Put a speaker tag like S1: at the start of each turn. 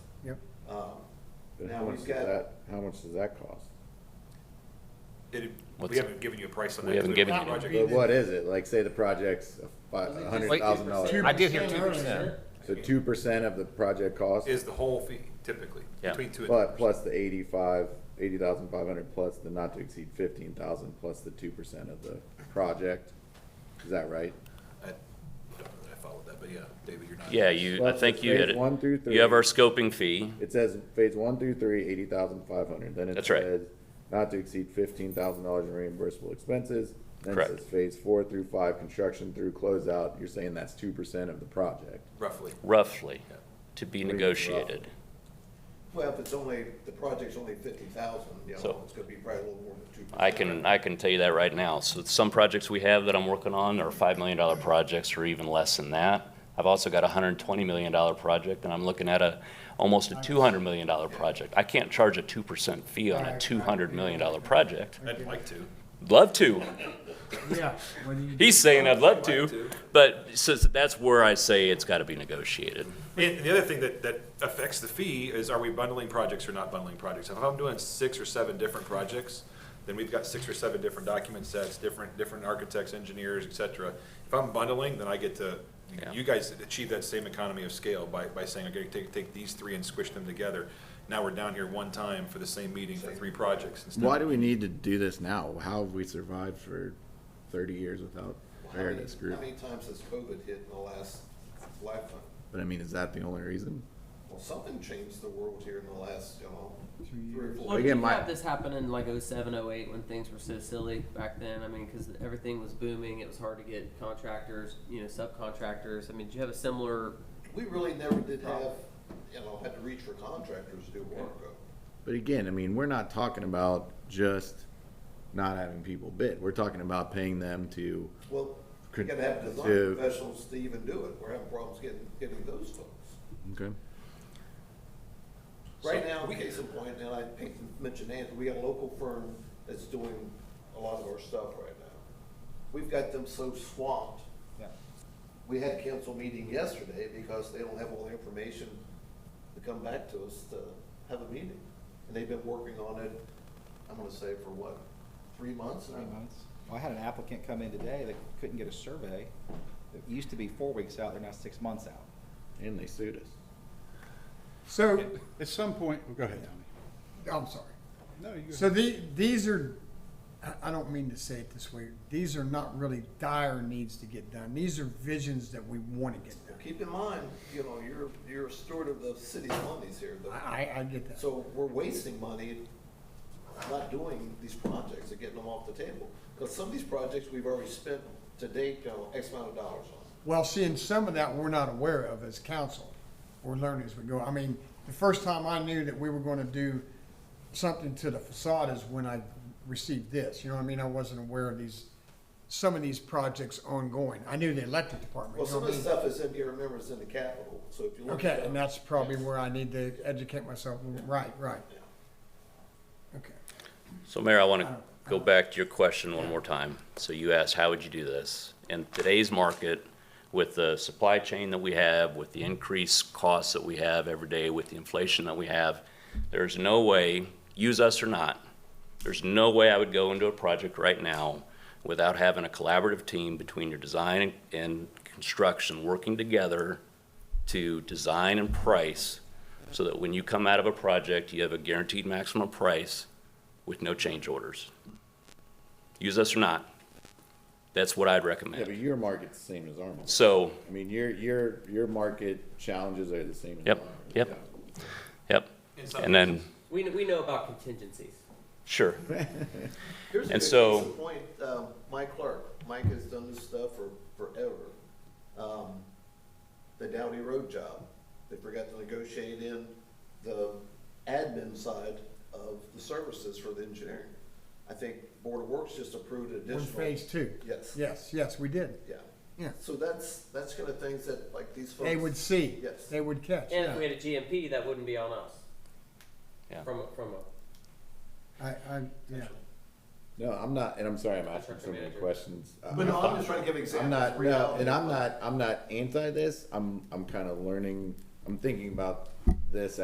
S1: Yep.
S2: Um,
S3: But
S2: Now
S3: how
S2: we've
S3: much does
S2: got-
S3: that, how much does that cost?
S4: It, we
S5: What's-
S4: haven't given you a price on that.
S5: We haven't
S4: 'cause
S5: given
S4: haven't
S5: you
S4: project-
S3: But what is it? Like, say the project's a fi- a hundred thousand dollars.
S5: I did hear 2%.
S3: So two percent of the project cost,
S4: Is the whole fee typically,
S5: Yeah.
S4: between two and.
S3: but plus the eighty-five, eighty thousand five hundred plus the not to exceed fifteen thousand plus the two percent of the project. Is that right?
S4: I don't know that I followed that, but yeah, David, you're not.
S5: Yeah, you, I
S3: Well,
S5: think
S3: it's
S5: you hit
S3: phase
S5: it.
S3: one through three.
S5: You have our scoping fee,
S3: It says phase one through three, eighty thousand five hundred, then it
S5: That's right.
S3: says not to exceed fifteen thousand dollars in reimbursable expenses. Then it
S5: Correct.
S3: says phase four through five, construction through closeout, you're saying that's two percent of the project.
S4: Roughly.
S5: roughly, to be
S3: Three,
S5: negotiated.
S2: Well, if it's only, the project's only fifty thousand, you
S5: So-
S2: know, it's gonna be probably a little more than two percent.
S5: I can, I can tell you that right now. So some projects we have that I'm working on are five million dollar projects or even less than that. I've also got a hundred and twenty million dollar project and I'm looking at a, almost a two hundred million dollar project. I can't charge a two percent fee on a two hundred million dollar project.
S4: I'd like to.
S5: Love to.
S1: Yeah. when you-
S5: He's saying I'd love
S4: I'd like to.
S5: to, but so that's where I say it's gotta be negotiated.
S4: And the other thing that, that affects the fee is are we bundling projects or not bundling projects? If I'm doing six or seven different projects, then we've got six or seven different document sets, different, different architects, engineers, et cetera. If I'm bundling, then I get to,
S5: Yeah.
S4: you guys achieve that same economy of scale by, by saying, okay, take, take these three and squish them together. Now we're down here one time for the same meeting for three projects instead.
S3: Why do we need to do this now? How have we survived for thirty years without
S2: Well, how many-
S3: fairness group?
S2: How many times has COVID hit in the last lifetime?
S3: But I mean, is that the only reason?
S2: Well, something changed the world here in the last, you know,
S1: Two
S2: three or
S6: Well,
S2: four.
S3: Again,
S6: did
S3: my-
S6: have this happen in like 07, 08 when things were so silly back then? I mean, because everything was booming, it was hard to get contractors, you know, subcontractors. I mean, did you have a similar?
S2: We really never did have, you know, had to reach for contractors to do work.
S3: But again, I mean, we're not talking about just not having people bid. We're talking about paying them to,
S2: Well, you
S3: Could-
S2: gotta have design
S3: to-
S2: professionals to even do it. We're having problems getting, getting those folks.
S3: okay?
S2: Right now, case in point, and I think you mentioned Anthony, we got a local firm that's doing a lot of our stuff right now. We've got them so swamped. We had a council meeting yesterday because they don't have all the information to come back to us to have a meeting. And they've been working on it, I'm gonna say for what, three months?
S7: three months. Well, I had an applicant come in today that couldn't get a survey. It used to be four weeks out, they're now six months out.
S3: And they sued us.
S8: So at some point, well, go ahead, Tommy.
S1: I'm sorry.
S8: No, you go
S1: So the, these are, I- I don't mean to say it this way, these are not really dire needs to get done. These are visions that we want to get done.
S2: Keep in mind, you know, you're, you're a steward of the city's monies here. though.
S1: I, I- I get that.
S2: So we're wasting money not doing these projects and getting them off the table. Because some of these projects, we've already spent to date, you know, X amount of dollars on.
S1: Well, seeing some of that we're not aware of as council. We're learning as we go. I mean, the first time I knew that we were going to do something to the facade is when I received this. You know what I mean? I wasn't aware of these, some of these projects ongoing. I knew the electric department.
S2: Well,
S1: you
S2: some
S1: know what I
S2: of the
S1: mean?
S2: stuff is in here, remember, it's in the capital, so if you look.
S1: Okay,
S2: at
S1: and
S2: that-
S1: that's probably where I need to educate myself. Right, right. Okay.
S5: So Mayor, I want to go back to your question one more time. So you asked, how would you do this? In today's market, with the supply chain that we have, with the increased costs that we have every day, with the inflation that we have, there's no way, use us or not, there's no way I would go into a project right now without having a collaborative team between your design and construction working together to design and price so that when you come out of a project, you have a guaranteed maximum price with no change orders. Use us or not, that's what I'd
S3: Yeah, but
S5: recommend.
S3: your market's the same as our market.
S5: So,
S3: I mean, your, your, your market challenges are the same as ours.
S5: yep, yep, yep.
S4: In some
S5: And then,
S6: We kn- we know about contingencies.
S5: sure,
S2: Here's a
S5: and
S2: good
S5: so-
S2: case in Point, um, Mike Clark, Mike has done this stuff for forever. Um, The Downey Road job, they forgot to negotiate in the admin side of the services for the engineering. I think Board of Works just approved additional.
S1: We're in phase two.
S2: Yes.
S1: Yes, yes, we did.
S2: Yeah.
S1: Yeah.
S2: So that's, that's kind of things that like these folks.
S1: They would see.
S2: Yes.
S1: They would catch.
S6: And if
S1: yeah.
S6: we had a GMP, that wouldn't be on us.
S5: Yeah.
S6: From a, from a
S1: I, I, yeah.
S3: No, I'm not, and I'm sorry, I'm asking
S6: Construction
S3: so many
S6: manager.
S3: questions. I-
S2: But no, I'm just trying to give
S3: I'm
S2: examples.
S3: not,
S2: of
S3: no,
S2: reality.
S3: and I'm not, I'm not anti this. I'm, I'm kind of learning, I'm thinking about this